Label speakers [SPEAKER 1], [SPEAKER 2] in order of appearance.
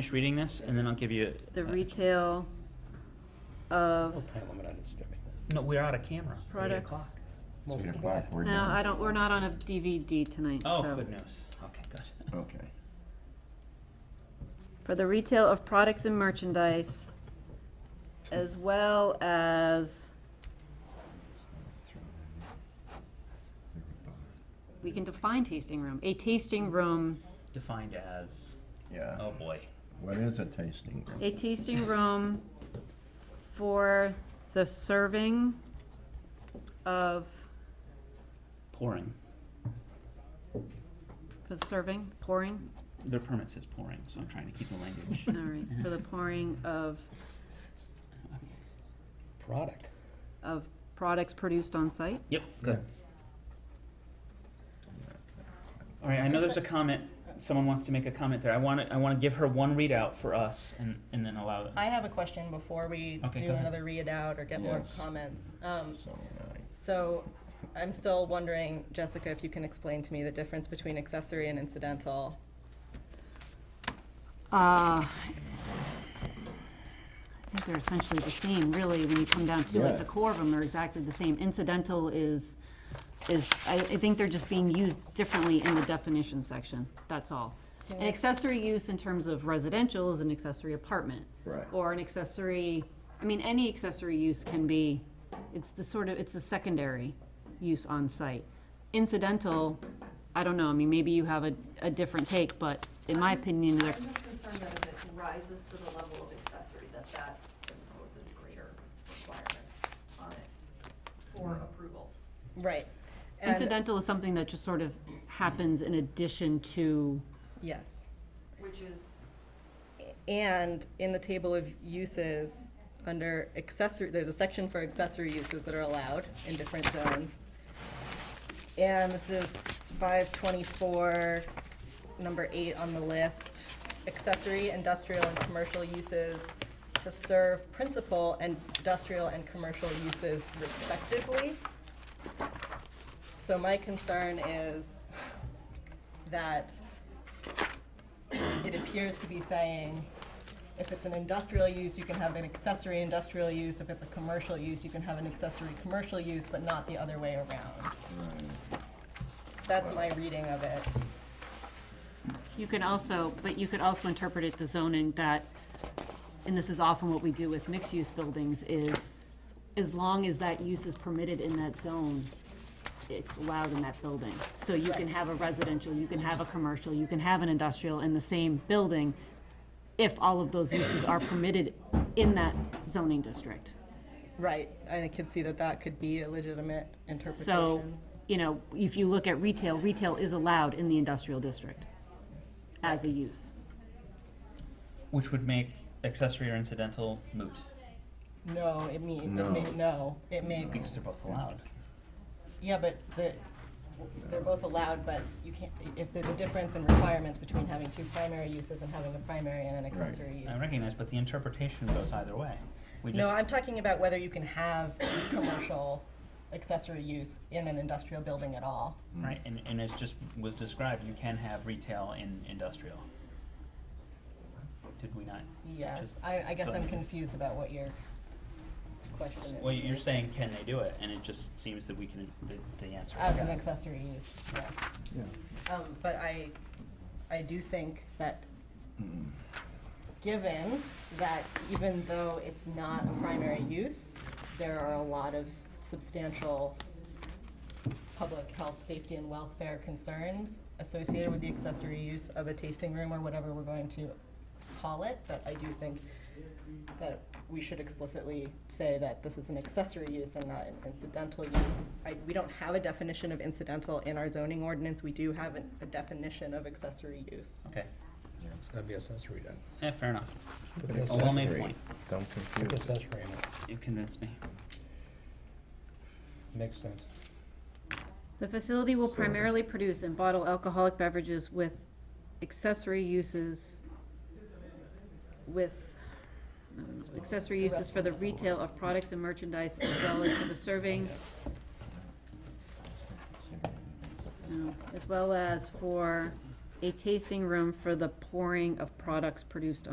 [SPEAKER 1] finish reading this, and then I'll give you.
[SPEAKER 2] The
[SPEAKER 1] uh,
[SPEAKER 2] retail of
[SPEAKER 3] What time am I not disturbing?
[SPEAKER 1] No, we're out of camera. Eight
[SPEAKER 2] products.
[SPEAKER 1] o'clock.
[SPEAKER 3] Seven o'clock, we're
[SPEAKER 2] No,
[SPEAKER 3] done.
[SPEAKER 2] I don't, we're not on a DVD tonight, so.
[SPEAKER 1] Oh, good news. Okay, good.
[SPEAKER 3] Okay.
[SPEAKER 2] For the retail of products and merchandise, as well as, we can define tasting room, a tasting room,
[SPEAKER 1] Defined as,
[SPEAKER 3] Yeah,
[SPEAKER 1] oh boy.
[SPEAKER 3] what is a tasting room?
[SPEAKER 2] a tasting room for the serving of,
[SPEAKER 1] Pouring.
[SPEAKER 2] for the serving, pouring,
[SPEAKER 1] Their permit says pouring, so I'm trying to keep the language.
[SPEAKER 2] all right, for the pouring of,
[SPEAKER 3] Product.
[SPEAKER 2] of products produced on site.
[SPEAKER 1] Yep, good. All right, I know there's a comment, someone wants to make a comment there. I want to, I want to give her one readout for us and, and then allow it.
[SPEAKER 4] I have a question before we
[SPEAKER 1] Okay,
[SPEAKER 4] do
[SPEAKER 1] go ahead.
[SPEAKER 4] another read out or get more
[SPEAKER 3] Yes.
[SPEAKER 4] comments. Um,
[SPEAKER 3] So, uh,
[SPEAKER 4] So I'm still wondering, Jessica, if you can explain to me the difference between accessory and incidental.
[SPEAKER 2] Uh, I think they're essentially the same, really, when you come down to
[SPEAKER 3] Yeah.
[SPEAKER 2] it. The core of them are exactly the same. Incidental is, is, I, I think they're just being used differently in the definition section, that's all. An accessory use in terms of residential is an accessory apartment.
[SPEAKER 3] Right.
[SPEAKER 2] Or an accessory, I mean, any accessory use can be, it's the sort of, it's the secondary use on site. Incidental, I don't know, I mean, maybe you have a, a different take, but in my opinion, they're
[SPEAKER 5] I'm just concerned that if it rises to the level of accessory, that that imposes greater requirements on it for approvals.
[SPEAKER 4] Right. And,
[SPEAKER 2] Incidental is something that just sort of happens in addition to,
[SPEAKER 4] yes.
[SPEAKER 5] Which is,
[SPEAKER 4] And in the table of uses, under accessory, there's a section for accessory uses that are allowed in different zones. And this is five twenty-four, number eight on the list. Accessory, industrial, and commercial uses to serve principal and industrial and commercial uses respectively. So my concern is that it appears to be saying, if it's an industrial use, you can have an accessory industrial use, if it's a commercial use, you can have an accessory commercial use, but not the other way around. That's my reading of it.
[SPEAKER 2] you can also, but you could also interpret it the zoning that, and this is often what we do with mixed-use buildings, is as long as that use is permitted in that zone, it's allowed in that building. So you can have a residential, you can have a commercial, you can have an industrial in the same building if all of those uses are permitted in that zoning district.
[SPEAKER 4] Right, and I can see that that could be a legitimate interpretation.
[SPEAKER 2] So, you know, if you look at retail, retail is allowed in the industrial district as a use.
[SPEAKER 1] Which would make accessory or incidental moot.
[SPEAKER 4] No, it means,
[SPEAKER 3] No.
[SPEAKER 4] it ma- no, it makes,
[SPEAKER 1] Because they're both allowed.
[SPEAKER 4] yeah, but the, they're both allowed, but you can't, if there's a difference in requirements between having two primary uses and having a primary and an accessory use.
[SPEAKER 1] I recognize, but the interpretation goes either way. We
[SPEAKER 4] No,
[SPEAKER 1] just,
[SPEAKER 4] I'm talking about whether you can have commercial accessory use in an industrial building at all.
[SPEAKER 1] right, and, and as just was described, you can have retail in industrial. Did we not?
[SPEAKER 4] Yes,
[SPEAKER 1] Just-
[SPEAKER 4] I, I guess
[SPEAKER 1] so
[SPEAKER 4] I'm
[SPEAKER 1] it's-
[SPEAKER 4] confused about what your question is.
[SPEAKER 1] Well, you're saying, can they do it? And it just seems that we can, the, the answer is
[SPEAKER 4] As an
[SPEAKER 1] yes.
[SPEAKER 4] accessory use, yes. Um, but I, I do think that, given that even though it's not a primary use, there are a lot of substantial public health, safety, and welfare concerns associated with the accessory use of a tasting room or whatever we're going to call it, but I do think that we should explicitly say that this is an accessory use and not an incidental use. I, we don't have a definition of incidental in our zoning ordinance, we do have an- a definition of accessory use.
[SPEAKER 1] Okay,
[SPEAKER 3] Yeah, It's gotta be accessory then.
[SPEAKER 1] yeah, fair enough.
[SPEAKER 3] Put
[SPEAKER 1] A well-made
[SPEAKER 3] accessory.
[SPEAKER 1] point.
[SPEAKER 3] Don't
[SPEAKER 6] Put
[SPEAKER 3] confuse it.
[SPEAKER 6] accessory in it,
[SPEAKER 1] You convinced me.
[SPEAKER 6] makes sense.
[SPEAKER 2] The facility will primarily produce and bottle alcoholic beverages with accessory uses with I don't know, accessory uses for the retail of products and merchandise as well as for the serving, no, as well as for a tasting room for the pouring of products produced